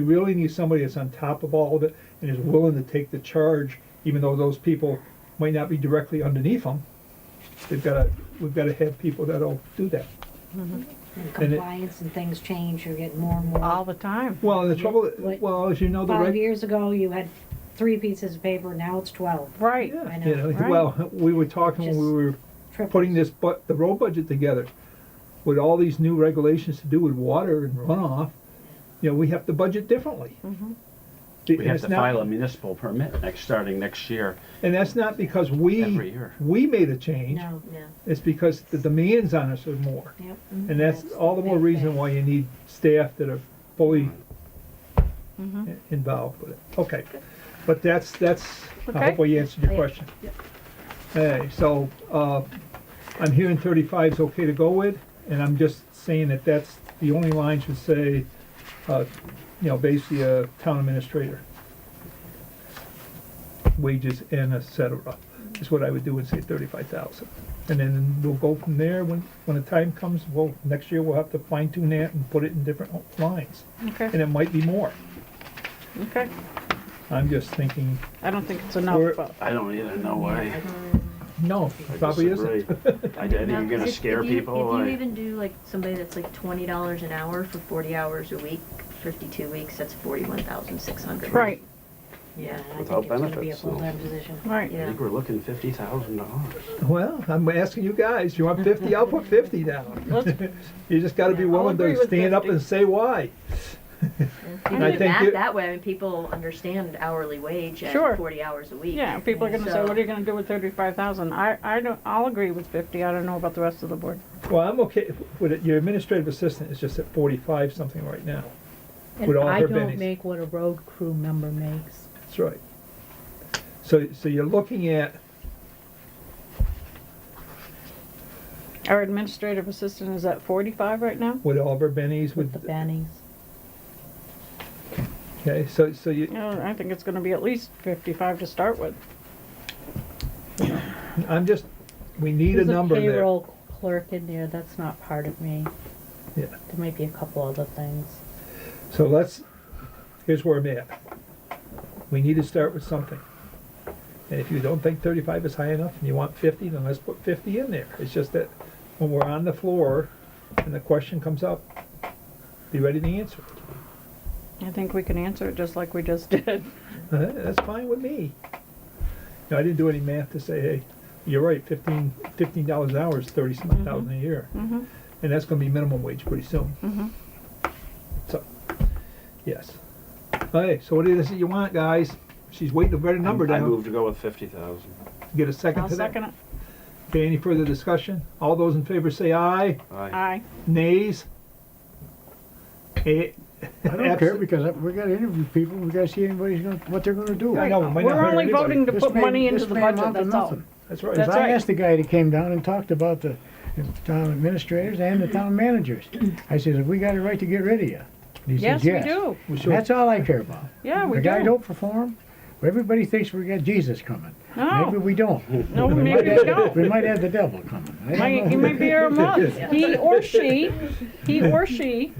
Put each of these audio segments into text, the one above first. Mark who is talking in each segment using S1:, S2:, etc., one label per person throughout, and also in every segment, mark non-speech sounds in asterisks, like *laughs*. S1: We really need somebody that's on top of all of it and is willing to take the charge, even though those people might not be directly underneath them. They've gotta, we've gotta have people that'll do that.
S2: And
S1: And it-
S2: compliance and things change, you're getting more and more.
S3: all the time.
S1: Well, and the trouble,
S2: What-
S1: well, as you know, the
S2: Five
S1: reg.
S2: years ago, you had three pieces of paper, now it's twelve.
S3: Right.
S1: Yeah,
S2: I
S1: you
S2: know,
S1: know,
S3: right.
S1: well, we were talking when we were
S2: Triples.
S1: putting this, but, the road budget together, with all these new regulations to do with water and runoff, you know, we have to budget differently.
S2: Mm-hmm.
S1: The-
S4: We
S1: and
S4: have
S1: it's
S4: to
S1: not-
S4: file a municipal permit next, starting next year.
S1: And that's not because we,
S4: Every year.
S1: we made a change.
S2: No, no,
S1: It's because the demands on us are more.
S2: yep. mm-hmm.
S1: And that's all the more
S2: big
S1: reason
S2: thing.
S1: why you need staff that are fully
S3: Mhm.
S1: i- involved with it. Okay, but that's, that's, I
S3: Okay.
S1: hope we answered your
S2: Yeah.
S1: question. Hey, so, uh, I'm hearing thirty-five's okay to go with, and I'm just saying that that's, the only line should say, uh, you know, basically a town administrator. Wages and et cetera, is what I would do and say thirty-five thousand. And then we'll go from there, when, when the time comes, well, next year we'll have to fine tune that and put it in different lines, and
S3: Okay,
S1: it might be more.
S3: okay.
S1: I'm just thinking,
S3: I don't think it's enough,
S1: We're-
S3: but,
S4: I don't either know why.
S1: no,
S4: I
S1: probably isn't. *laughs*
S4: disagree. I did,
S5: No,
S4: you're
S5: 'cause
S4: gonna
S5: if-
S4: scare
S5: if you-
S4: people
S5: If you
S4: like,
S5: even do like somebody that's like twenty dollars an hour for forty hours a week, fifty-two weeks, that's forty-one thousand six hundred.
S3: right,
S2: Yeah, I
S4: Without
S2: think it's gonna be a
S4: benefits, so-
S2: full-time position.
S3: right.
S4: I think we're looking fifty thousand dollars.
S1: Well, I'm asking you guys, you want fifty, I'll put fifty down.
S6: *laughs*
S3: Let's-
S1: You just gotta be
S3: Yeah, I'll
S1: willing
S3: agree
S1: to
S3: with
S1: stand up
S3: 50.
S1: and say why.
S5: You
S1: I
S5: do
S1: think
S5: that
S1: it-
S5: that way, I mean, people understand hourly wage
S3: Sure.
S5: at forty hours a week.
S3: Yeah, people are gonna say,
S5: So-
S3: what are you gonna do with thirty-five thousand? I, I don't, I'll agree with fifty, I don't know about the rest of the board.
S1: Well, I'm okay with it, your administrative assistant is just at forty-five something right now.
S7: And
S1: With all
S7: I
S1: her
S7: don't
S1: bennies.
S7: make what a road crew member makes.
S1: That's right. So, so you're looking at,
S3: Our administrative assistant is at forty-five right now?
S1: with all of our bennies,
S7: With
S1: with,
S7: the bennies.
S1: okay, so, so you,
S3: No, Uh, I think it's gonna be at least fifty-five to start with.
S1: I'm just, we need a
S7: There's
S1: number
S7: a
S1: there.
S7: payroll clerk in there, that's not part of me.
S1: Yeah.
S7: There might be a couple other things.
S1: So let's, here's where I'm at. We need to start with something. And if you don't think thirty-five is high enough and you want fifty, then let's put fifty in there. It's just that when we're on the floor and the question comes up, be ready to answer.
S3: I think we can answer it just like we just *laughs* did.
S1: Uh, That's fine with me. No, I didn't do any math to say, hey, you're right, fifteen, fifteen dollars an hour is thirty
S3: Mm-hmm.
S1: some thousand a year.
S3: Mhm.
S1: And that's gonna be minimum wage pretty soon.
S3: Mhm.
S1: So, yes. Okay, so what is it you want, guys? She's waiting to write a number
S4: I
S1: down.
S4: moved to go with fifty thousand.
S1: Get a second
S3: I'll
S1: to that.
S3: second it.
S1: Okay, any further discussion? All those in favor say aye.
S4: I
S3: Aye,
S1: Nays? Eh,
S6: I don't care,
S1: Abs-
S6: because we gotta interview people, we gotta see anybody's gonna, what they're gonna do.
S1: I know, it might not
S3: we're
S1: hurt
S3: only
S1: anybody.
S3: voting to
S6: This
S3: put
S6: may-
S3: money into
S6: this
S3: the
S6: may
S3: budget,
S6: amount to
S3: that's all.
S6: nothing.
S1: That's right.
S3: That's
S6: Cause I
S3: right.
S6: asked the guy that came down and talked about the town administrators and the town managers. I says, we got a right to get rid of you. And he
S3: Yes,
S6: says,
S3: we do,
S1: We should-
S6: That's all I care about.
S3: yeah, we
S6: The guy
S3: do.
S6: don't perform, everybody thinks we got Jesus coming. Maybe
S3: No,
S6: we don't.
S3: no, *laughs*
S6: We
S3: maybe
S6: might
S3: we
S6: have-
S3: don't.
S6: We might have the devil coming. I don't
S3: Might,
S6: know.
S3: he might be here a month. He or she, he or she,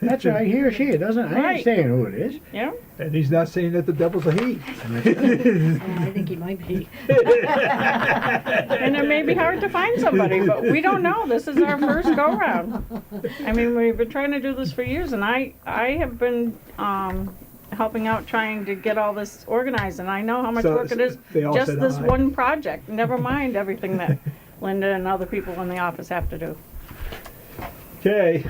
S6: That's right, he or she, it doesn't, I
S3: Right.
S6: ain't saying who it is.
S3: yeah.
S1: And he's not saying that the devil's a he.
S2: Yeah, *laughs* I think he might be.
S3: And it may be hard to find somebody, but we don't know. This is our first go round. I mean, we've been trying to do this for years and I, I have been, um, helping out trying to get all this organized and I know how much
S1: So-
S3: work it is.
S1: they all
S3: Just
S1: said
S3: this
S1: aye.
S3: one project, never mind everything that Linda and other people in the office have to do.
S1: Okay.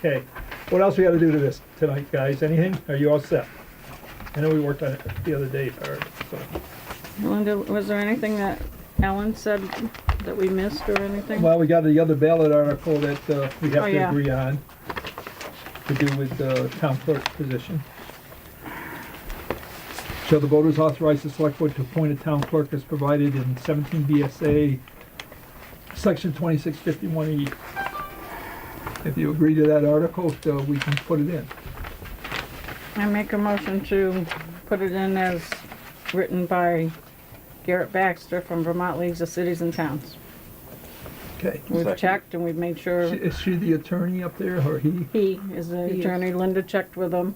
S1: Okay. What else we gotta do to this tonight, guys? Anything? Are you all set? I know we worked on it the other day, Barb, so.
S3: Linda, was there anything that Ellen said that we missed or anything?
S1: Well, we got the other ballot article that, uh, we have
S3: Oh,
S1: to
S3: yeah.
S1: agree on to do with the town clerk position. Shall the voters authorize the select board to appoint a town clerk as provided in seventeen BSA, section twenty-six fifty-one E? If you agree to that article, so we can put it in.
S3: I make a motion to put it in as written by Garrett Baxter from Vermont Leagues of Cities and Towns.
S1: Okay.
S3: We've
S4: Second.
S3: checked and we've made
S1: Is she-
S3: sure
S1: Is she the attorney up there, or he?
S3: he is the
S7: He is.
S3: attorney. Linda checked with him.